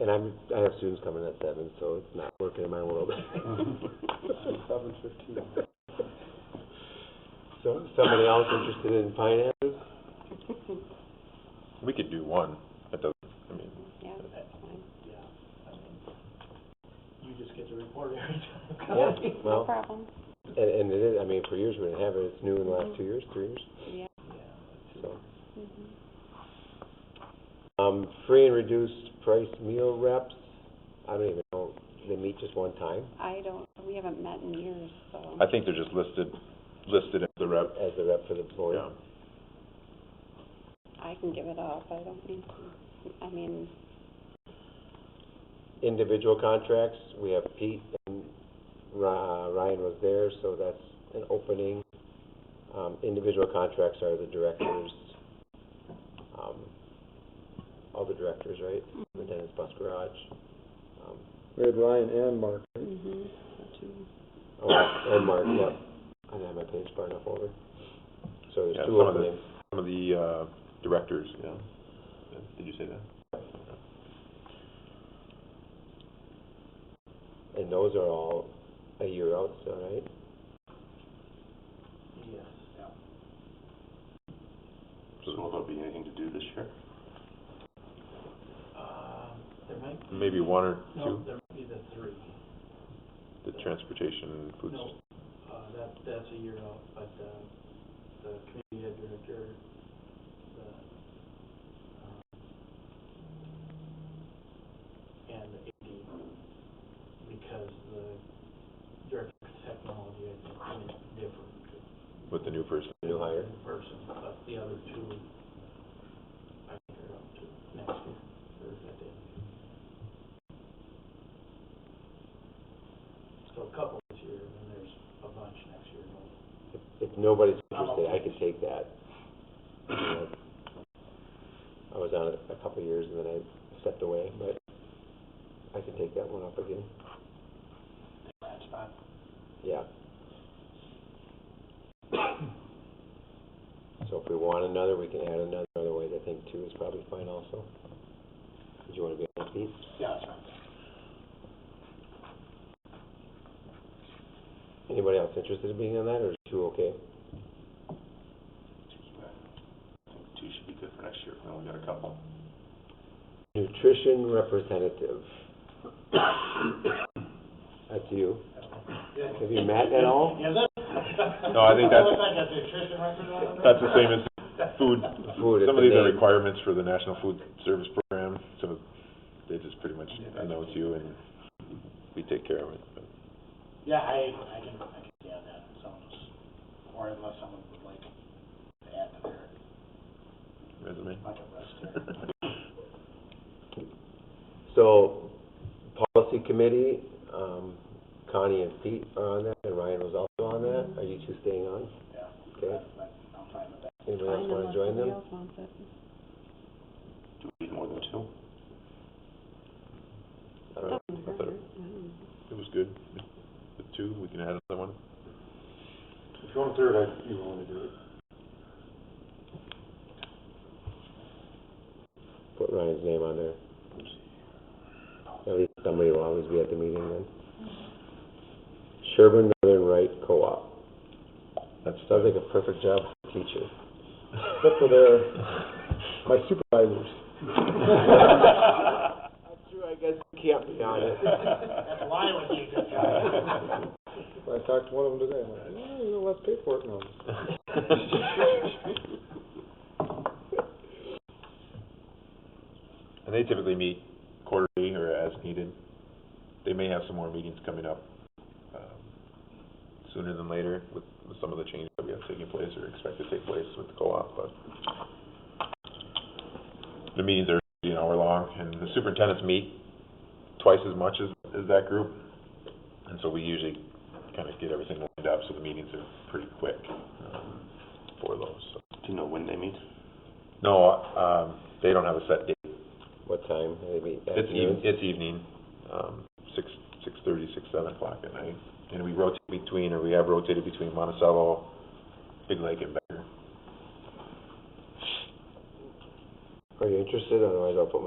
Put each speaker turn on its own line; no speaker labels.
and I'm, I have students coming at seven, so it's not working in my world.
Seven fifteen.
So, somebody else interested in finances?
We could do one, that doesn't, I mean,
Yeah, that's fine.
Yeah, I mean, you just get to report every time.
Yeah,
No
well,
problem.
and, and it is, I mean, for years we didn't have it, it's new in the last two years, three years,
Yeah.
so.
mhm.
Um, free and reduced price meal reps, I don't even know, they meet just one time
I don't, we haven't met in years, so.
I think they're just listed, listed as the rep.
as the rep for the board?
Yeah.
I can give it up. I don't need to. I mean,
Individual contracts, we have Pete and Ry- uh, Ryan was there, so that's an opening. Um, individual contracts are the directors, um, all the directors, right? The Dennis Bus Garage. Um,
We had Ryan and Mark.
mhm, so two.
Oh, and Mark, yep. I didn't have my page far enough over. So
Yeah,
there's two
some of the-
openings.
Some of the, uh, directors, yeah. Did you say that?
And those are all a year out still, right?
Yes.
So will there be anything to do this year?
Um, there might,
Maybe one or
no,
two,
there might be the three.
the transportation, food,
No, uh, that, that's a year out, but, uh, the community head director, the, um, and the AD, because the director of technology, I think, is different
with the new person.
New hire.
in person, but the other two, I think are up to next year, or is that the end of June? So a couple this year, and then there's a bunch next year, no
If, if nobody's interested, I can take that. You
Uh-huh.
know, I was on it a couple of years and then I stepped away, but I can take that one up again.
That's not,
Yeah. So if we want another, we can add another. Otherwise, I think two is probably fine also. Did you want to be on that piece?
yeah, that's not.
Anybody else interested in being on that or is two okay?
Two should be good for next year, we only got a couple.
Nutrition representative. That's you. Have you met at all?
Is it?
No, I think that's-
Looks like a nutrition record on it.
That's the same as food.
Food is
Some
the
of these are
name.
requirements for the National Food Service Program, so they just pretty much announce you and we take care of it. but-
Yeah, I, I can, I can see on that, someone's, or unless someone would like to add to their,
resume.
like a rest there.
So, policy committee, um, Connie and Pete are on that, and Ryan was also on that. Are you two staying on?
Yeah.
Okay.
I'm fine with that.
Anybody else
Fine, unless
wanna join
somebody
them?
else wants it.
Do we need more than two?
I don't know.
Doesn't
I thought
hurt, yeah.
It was good. With two, we can add another one.
If you want a third, I, you want to do it.
Put Ryan's name on there. At least somebody will always be at the meeting then. Sherburne Northern Right Co-op.
That's
Sounds like a perfect job for a teacher.
Except for their, my supervisors.
That's true, I guess you can't be on it.
That's why I would be a good guy.
I talked to one of them today, I'm like, "Yeah, you know, let's pay for it now.
And they typically meet quarterly or as needed. They may have some more meetings coming up, um, sooner than later with, with some of the changes that we have taking place or expect to take place with the co-op, but the meetings are an hour long and the superintendents meet twice as much as, as that group. And so we usually kind of get everything lined up, so the meetings are pretty quick, um, for those, so.
Do you know when they meet?
No, um, they don't have a set date.
What time? Maybe
It's
afternoon?
evening, it's evening, um, six, six thirty, six, seven o'clock at night. And we rotate between, or we have rotated between Monticello, Big Lake and Becker.
Are you interested? Otherwise I'll put my